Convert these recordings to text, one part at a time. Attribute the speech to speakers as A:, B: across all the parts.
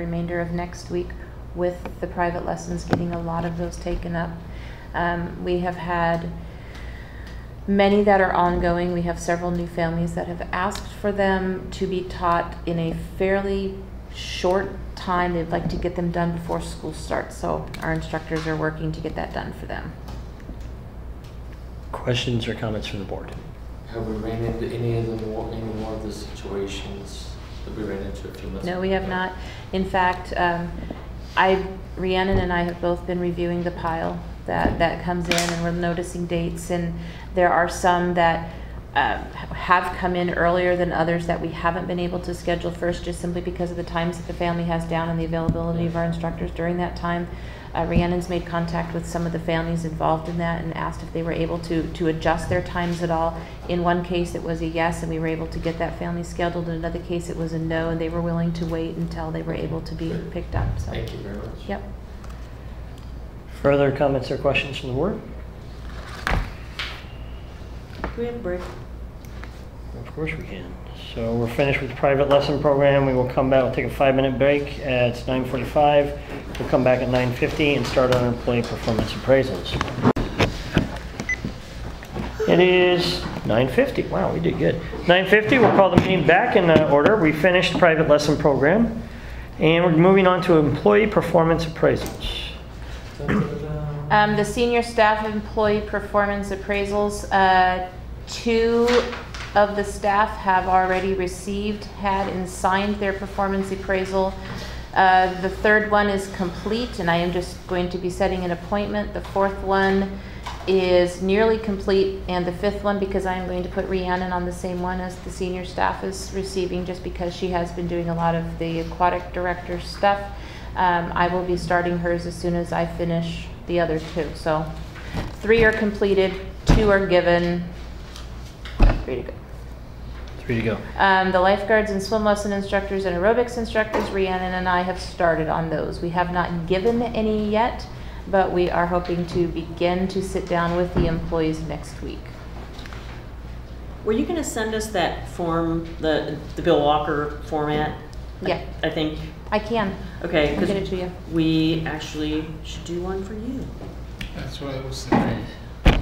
A: remainder of next week with the private lessons, getting a lot of those taken up. Um, we have had many that are ongoing. We have several new families that have asked for them to be taught in a fairly short time. They'd like to get them done before school starts, so our instructors are working to get that done for them.
B: Questions or comments from the board?
C: Have we ran into any of the more, any more of the situations that we ran into a few months?
A: No, we have
C: ago?
A: not. In fact, um, I, Rhiannon and I have both been reviewing the pile that, that comes in, and we're noticing dates, and there are some that uh, have come in earlier than others that we haven't been able to schedule first, just simply because of the times that the family has down and the availability of our instructors during that time. Uh, Rhiannon's made contact with some of the families involved in that and asked if they were able to, to adjust their times at all. In one case, it was a yes, and we were able to get that family scheduled. In another case, it was a no, and they were willing to wait until they were able to be picked up, so.
C: Thank you very much.
A: Yep.
B: Further comments or questions from the board?
D: we have a break?
B: Of course we can. So we're finished with the private lesson program. We will come back, we'll take a five-minute break. Uh, It's 9:45. We'll come back at 9:50 and start on employee performance appraisals. It is 9:50. Wow, we did good. 9:50, we'll call the meeting back in uh, order. We finished private lesson program, and we're moving on to employee performance appraisals.
C: Dun-dun-dun.
A: Um, the senior staff employee performance appraisals, uh, two of the staff have already received, had and signed their performance appraisal. Uh, the third one is complete and I am just going to be setting an appointment. The fourth one is nearly complete and the fifth one, because I am going to put Rhiannon on the same one as the senior staff is receiving, just because she has been doing a lot of the aquatic director stuff. Um, I will be starting hers as soon as I finish the other two. So three are completed, two are given, three to go.
B: Three to go.
A: Um, the lifeguards and swim lesson instructors and aerobics instructors, Rhiannon and I have started on those. We have not given any yet, but we are hoping to begin to sit down with the employees next week.
D: Were you gonna send us that form, the, the Bill Walker format?
A: Yeah,
D: I think,
A: I can.
D: okay,
A: I'll get it to
D: because
A: you.
D: we actually should do one for you.
E: That's what I was thinking.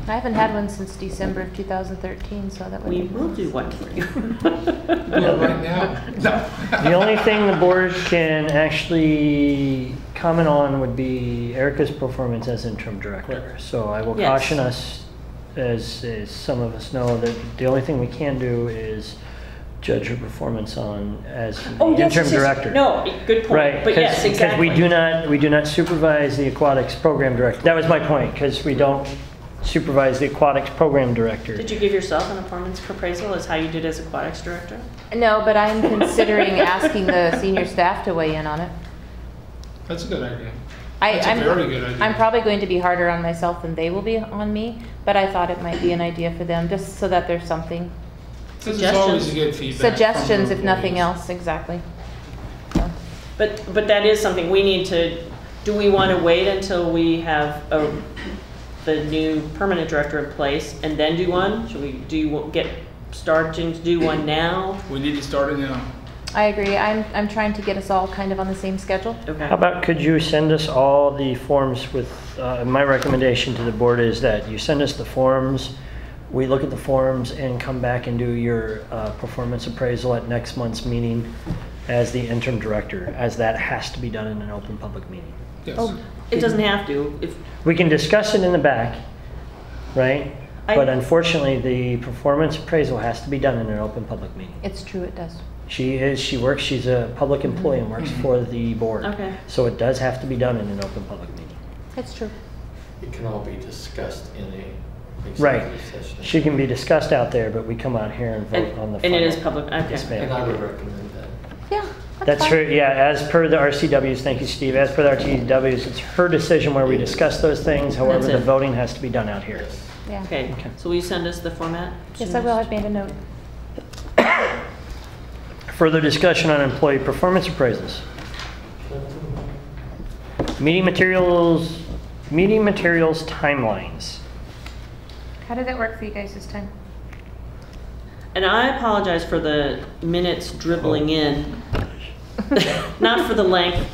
A: I haven't had one since December of 2013, so that would
D: We
A: be.
D: will do one for you.
E: Well, right now. No.
B: The only thing the board can actually comment on would be Erica's performance as interim director. So I will
D: Yes.
B: caution us, as, as some of us know, that the only thing we can do is judge her performance on as the
D: Oh, yes, yes,
B: interim
D: yes.
B: director.
D: No, good point.
B: Right,
D: But yes,
B: because
D: exactly.
B: we do not, we do not supervise the aquatics program director. That was my point, because we don't supervise the aquatics program director.
D: Did you give yourself an performance appraisal as how you did as aquatics director?
A: No, but I'm considering asking the senior staff to weigh in on it.
E: That's a good idea.
A: I,
E: That's a
A: I'm,
E: very good idea.
A: I'm probably going to be harder on myself than they will be on me, but I thought it might be an idea for them, just so that there's something.
E: This is always
D: Suggestions.
E: a good feedback. from
A: Suggestions, if
E: employees.
A: nothing else, exactly. So,
D: But, but that is something we need to, do we want to wait until we have a, the new permanent director in place and then do one? Should we do, get, starting to do one now?
E: We need to start it now.
A: I agree. I'm, I'm trying to get us all kind of on the same schedule.
B: How
D: Okay,
B: about, could you send us all the forms with, uh, my recommendation to the board is that you send us the forms, we look at the forms and come back and do your uh, performance appraisal at next month's meeting as the interim director, as that has to be done in an open public meeting.
E: Yes.
A: Oh,
D: it doesn't have to, if,
B: We can discuss it in the back, right?
D: I-
B: But unfortunately, the performance appraisal has to be done in an open public meeting.
A: It's true, it does.
B: She is, she works, she's a public employee and works for the board.
D: Okay.
B: So it does have to be done in an open public meeting.
A: It's true.
C: It can all be discussed in a
B: Right.
C: executive session.
B: She can be discussed out there, but we come out here and
D: and
B: vote on the.
D: and it
B: final.
D: is public,
B: Yes,
D: okay.
B: ma'am.
C: And I would recommend that.
A: Yeah.
B: That's
A: fine.
B: her, yeah, as per the RCWs, thank you, Steve, as per the RCWs, it's her decision where we discuss those things. However,
D: That's
B: the
D: it.
B: voting has to be done out here.
C: Yes.
A: Yeah.
D: Okay,
B: Okay.
D: so will you send us the format?
A: Yes, I will. I've made a note.
B: Further discussion on employee performance appraisals. Meeting materials, meeting materials timelines.
A: How did that work for you guys this time?
D: And I apologize for the minutes dribbling in. Not for the length